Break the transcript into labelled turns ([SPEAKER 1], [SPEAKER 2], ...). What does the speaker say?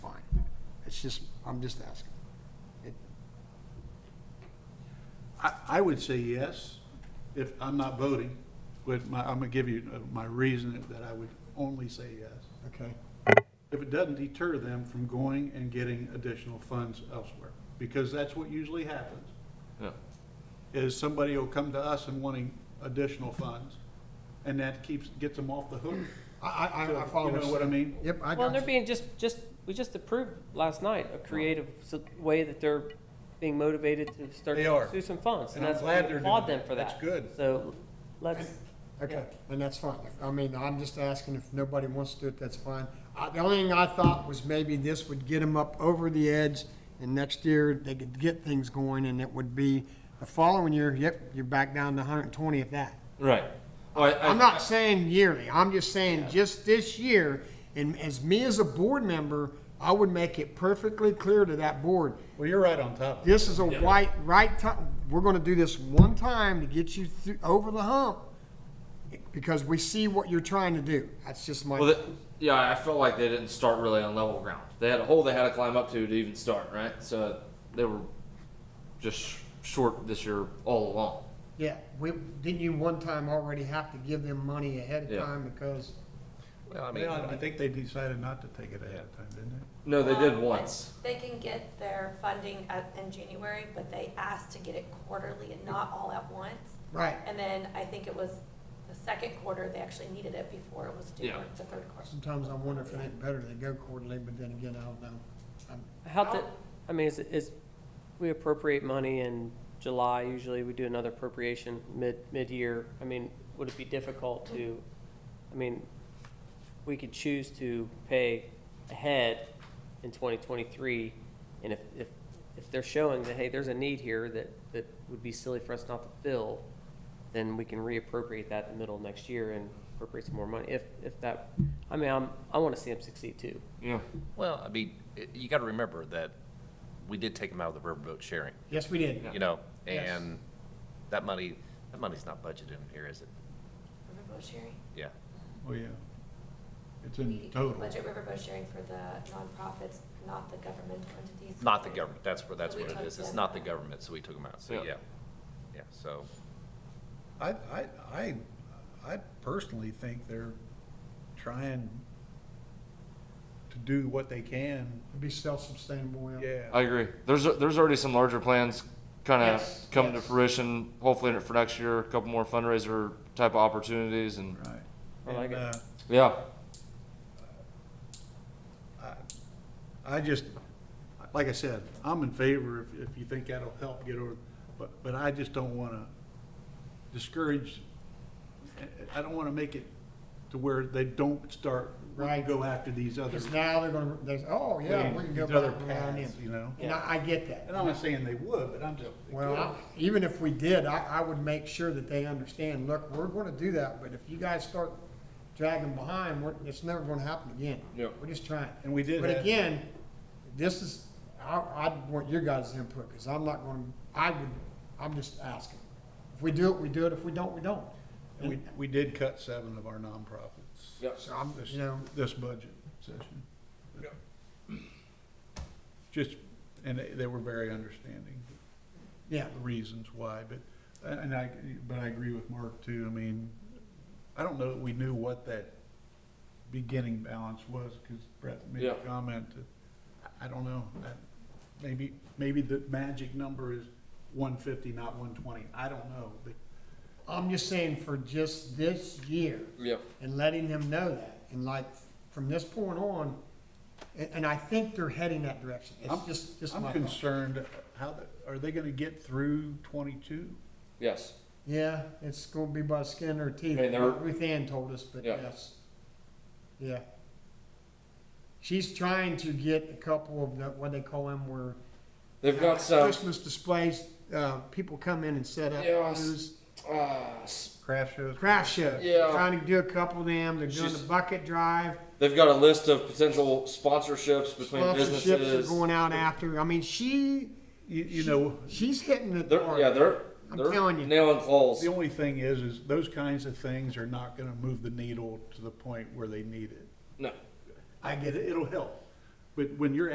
[SPEAKER 1] It's just, I'm just asking.
[SPEAKER 2] I, I would say yes, if I'm not voting, but my, I'm gonna give you uh, my reason that I would only say yes.
[SPEAKER 1] Okay.
[SPEAKER 2] If it doesn't deter them from going and getting additional funds elsewhere, because that's what usually happens,
[SPEAKER 3] Yeah.
[SPEAKER 2] is somebody will come to us and wanting additional funds, and that keeps, gets them off the hook.
[SPEAKER 1] I, I, I- I follow.
[SPEAKER 2] You know what I mean?
[SPEAKER 1] Yep, I
[SPEAKER 4] Well, and they're
[SPEAKER 1] got you.
[SPEAKER 4] being just, just, we just approved last night a creative s- way that they're being motivated to start
[SPEAKER 2] They
[SPEAKER 4] to
[SPEAKER 2] are.
[SPEAKER 4] pursue some funds.
[SPEAKER 2] And I'm
[SPEAKER 4] that's-
[SPEAKER 2] glad
[SPEAKER 4] we
[SPEAKER 2] they're
[SPEAKER 4] applaud
[SPEAKER 2] doing
[SPEAKER 4] them for
[SPEAKER 2] that. That's
[SPEAKER 4] that.
[SPEAKER 2] good.
[SPEAKER 4] So let's,
[SPEAKER 1] Okay, and that's fine. I mean, I'm just asking if nobody wants to do it, that's fine. I, the only thing I thought was maybe this would get them up over the edge and next year they could get things going and it would be the following year, yep, you're back down to hundred and twenty at that.
[SPEAKER 3] Right. Well, Oh, I- I-
[SPEAKER 1] I'm not saying yearly, I'm just saying just this year, and as me as a board member, I would make it perfectly clear to that board,
[SPEAKER 2] Well, you're right on top of it.
[SPEAKER 1] this is a white, right time, we're gonna do this one time to get you through, over the hump, because we see what you're trying to do, that's just
[SPEAKER 3] Well,
[SPEAKER 1] my,
[SPEAKER 3] the, yeah, I felt like they didn't start really on level ground. They had a hole they had to climb up to to even start, right? So they were just sh- short this year all along.
[SPEAKER 1] yeah, we, didn't you one time already have to give them money ahead of
[SPEAKER 3] Yeah.
[SPEAKER 1] time because,
[SPEAKER 5] Well, I mean,
[SPEAKER 2] Yeah, I think they decided not to take it ahead of time, didn't they?
[SPEAKER 3] No, they did
[SPEAKER 6] Um,
[SPEAKER 3] once.
[SPEAKER 6] They can get their funding at, in January, but they asked to get it quarterly and not all at once.
[SPEAKER 1] right,
[SPEAKER 6] And then I think it was the second quarter, they actually needed it before it was due,
[SPEAKER 3] Yeah.
[SPEAKER 6] or the third quarter.
[SPEAKER 1] sometimes I wonder if it ain't better to go quarterly, but then again, I don't know. I'm-
[SPEAKER 4] how the, I mean, is, is, we appropriate money in July, usually we do another appropriation mid, mid-year. I mean, would it be difficult to, I mean, we could choose to pay ahead in twenty twenty-three. And if, if, if they're showing that, hey, there's a need here that, that would be silly for us not to fill, then we can reappropriate that in the middle of next year and appropriate some more money. If, if that, I mean, I'm, I wanna see them succeed too.
[SPEAKER 3] Yeah.
[SPEAKER 5] well, I mean, i- you got to remember that we did take them out of the riverboat sharing,
[SPEAKER 1] Yes, we did.
[SPEAKER 5] you know,
[SPEAKER 1] Yes.
[SPEAKER 5] and that money, that money's not budgeted in here, is it?
[SPEAKER 6] Riverboat sharing?
[SPEAKER 5] Yeah.
[SPEAKER 2] Oh, yeah. It's in
[SPEAKER 6] We
[SPEAKER 2] total.
[SPEAKER 6] Budget riverboat sharing for the nonprofits, not the governmental entities.
[SPEAKER 5] Not the government. That's what, that's
[SPEAKER 6] We
[SPEAKER 5] what it
[SPEAKER 6] took
[SPEAKER 5] is. It's
[SPEAKER 6] them
[SPEAKER 5] not the
[SPEAKER 6] out.
[SPEAKER 5] government, so we took them out. So,
[SPEAKER 3] Yeah.
[SPEAKER 5] yeah. Yeah, so,
[SPEAKER 7] I, I, I, I personally think they're trying
[SPEAKER 2] To do what they can.
[SPEAKER 1] It'd be self-sustainable, yeah.
[SPEAKER 2] Yeah.
[SPEAKER 3] I agree. There's there's already some larger plans kind of
[SPEAKER 1] Yes,
[SPEAKER 3] come to
[SPEAKER 1] yes.
[SPEAKER 3] fruition. Hopefully for next year, a couple more fundraiser type of opportunities, and
[SPEAKER 2] Right.
[SPEAKER 4] I like
[SPEAKER 2] And,
[SPEAKER 4] it.
[SPEAKER 2] uh,
[SPEAKER 3] yeah,
[SPEAKER 2] uh, I just, like I said, I'm in favor if, if you think that'll help get over, but, but I just don't wanna discourage, I- I don't wanna make it to where they don't start,
[SPEAKER 1] Right.
[SPEAKER 2] go after these other,
[SPEAKER 1] Because now they're gonna, they, oh, yeah, we can go
[SPEAKER 2] these other
[SPEAKER 1] back around
[SPEAKER 2] paths,
[SPEAKER 1] in.
[SPEAKER 2] you know?
[SPEAKER 1] And I, I get that.
[SPEAKER 2] And I'm not saying they would, but I'm just.
[SPEAKER 1] Well, I- even if we did, I, I would make sure that they understand, look, we're gonna do that, but if you guys start dragging behind, we're, it's never gonna happen again.
[SPEAKER 3] Yep.
[SPEAKER 1] We're just trying.
[SPEAKER 2] And we did
[SPEAKER 1] But
[SPEAKER 2] have-
[SPEAKER 1] again, this is, I, I want your guys' input, because I'm not gonna, I would, I'm just asking. If we do it, we do it. If we don't, we don't.
[SPEAKER 2] And we, we did cut seven of our nonprofits.
[SPEAKER 3] Yep.
[SPEAKER 1] So I'm,
[SPEAKER 2] This,
[SPEAKER 1] you know,
[SPEAKER 2] this budget session. Just, and they, they were very understanding.
[SPEAKER 1] yeah,
[SPEAKER 2] the reasons why, but, and I, but I agree with Mark too, I mean, I don't know that we knew what that beginning balance was, because Brett made a
[SPEAKER 3] Yeah.
[SPEAKER 2] comment that, I I don't know, that, maybe, maybe the magic number is one fifty, not one twenty, I don't know, but
[SPEAKER 1] I'm just saying for just this year,
[SPEAKER 3] yep.
[SPEAKER 1] and letting them know that. And like, from this point on, and, and I think they're heading that direction. It's
[SPEAKER 2] I'm-
[SPEAKER 1] just, just
[SPEAKER 2] I'm
[SPEAKER 1] my thought.
[SPEAKER 2] concerned, how, the- are they gonna get through twenty-two?
[SPEAKER 3] Yes.
[SPEAKER 1] Yeah, it's gonna be by the skin of their teeth.
[SPEAKER 3] And they're-
[SPEAKER 1] Ruth Ann told us, but
[SPEAKER 3] Yeah.
[SPEAKER 1] yes. Yeah. She's trying to get a couple of the, what they call them, where
[SPEAKER 3] They've got some
[SPEAKER 1] Christmas displays, uh, people come in and set up
[SPEAKER 3] Yeah, I s-
[SPEAKER 1] booths.
[SPEAKER 3] uh, s-
[SPEAKER 2] Craft shows?
[SPEAKER 1] Craft show.
[SPEAKER 3] Yeah.
[SPEAKER 1] Trying to do a couple of them. They're doing the
[SPEAKER 3] She's-
[SPEAKER 1] bucket drive.
[SPEAKER 3] they've got a list of potential sponsorships between
[SPEAKER 1] Sponsorships are
[SPEAKER 3] businesses.
[SPEAKER 1] going out after. I mean, she
[SPEAKER 2] You, you know,
[SPEAKER 1] She's hitting it
[SPEAKER 3] They're
[SPEAKER 1] hard.
[SPEAKER 3] yeah, they're
[SPEAKER 1] I'm
[SPEAKER 3] they're
[SPEAKER 1] telling you.
[SPEAKER 3] nailing claws.
[SPEAKER 2] the only thing is, is those kinds of things are not gonna move the needle to the point where they need it.
[SPEAKER 3] No.
[SPEAKER 2] I get it. It'll help. But when you're